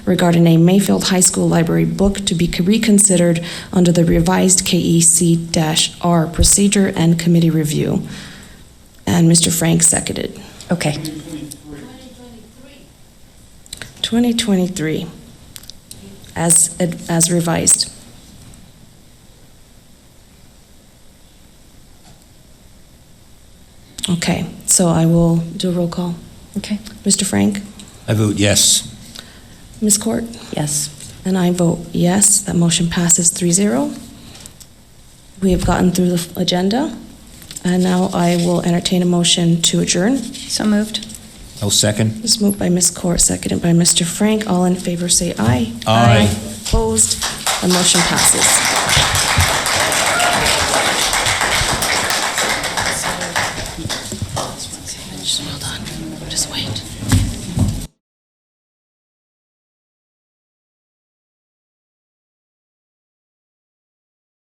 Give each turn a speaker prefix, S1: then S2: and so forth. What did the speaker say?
S1: regarding a Mayfield High School library book to be reconsidered under the revised E KEC-R procedure and committee review. And Mr. Frank seconded.
S2: Okay.
S1: 2023, as as revised. Okay, so I will do a roll call.
S2: Okay.
S1: Mr. Frank?
S3: I vote yes.
S1: Ms. Court?
S2: Yes.
S1: And I vote yes. That motion passes 3-0. We have gotten through the agenda, and now I will entertain a motion to adjourn.
S2: So moved.
S3: I'll second.
S1: It's moved by Ms. Court, seconded by Mr. Frank. All in favor, say aye.
S3: Aye.
S1: Opposed? The motion passes.